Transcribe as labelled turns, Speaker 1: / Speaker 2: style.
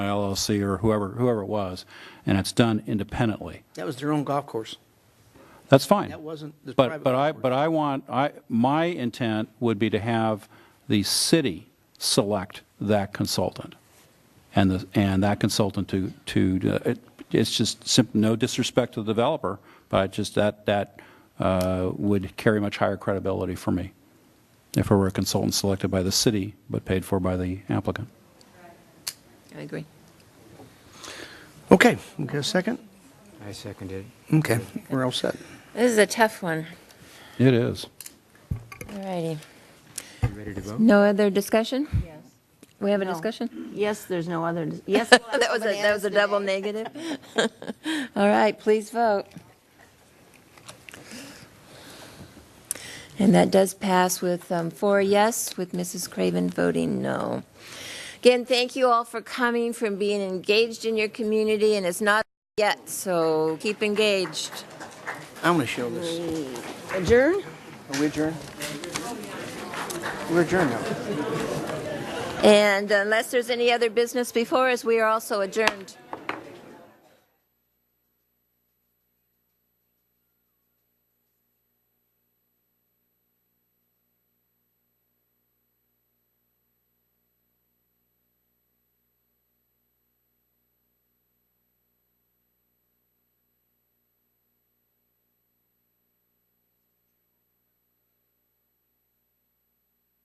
Speaker 1: LLC or whoever, whoever it was, and it's done independently.
Speaker 2: That was their own golf course.
Speaker 1: That's fine.
Speaker 2: That wasn't the
Speaker 1: But,
Speaker 2: private
Speaker 1: but I,
Speaker 2: property.
Speaker 1: but I want, I, my intent would be to have the city select that consultant. And the, and that consultant to, to, uh, it- it's just simp, no disrespect to the developer, but I just, that, that uh, would carry much higher credibility for me if it were a consultant selected by the city but paid for by the applicant.
Speaker 3: I agree.
Speaker 2: Okay, we got a second?
Speaker 4: I second it.
Speaker 2: Okay, we're all set.
Speaker 3: This is a tough one.
Speaker 1: It is.
Speaker 3: All righty.
Speaker 4: You ready to vote?
Speaker 5: No other discussion? Yes. We have a
Speaker 6: No.
Speaker 5: discussion?
Speaker 6: Yes, there's no other, yes.
Speaker 3: Oh, That was a, that was a double negative. All right, please vote. And that does pass with um, four yes, with Mrs. Craven voting no. Again, thank you all for coming, from being engaged in your community, and it's not yet, so keep engaged.
Speaker 2: I'm going to show this.
Speaker 6: Adjourn?
Speaker 2: Are we adjourned? We're adjourned now.
Speaker 3: And unless there's any other business before us, we are also adjourned.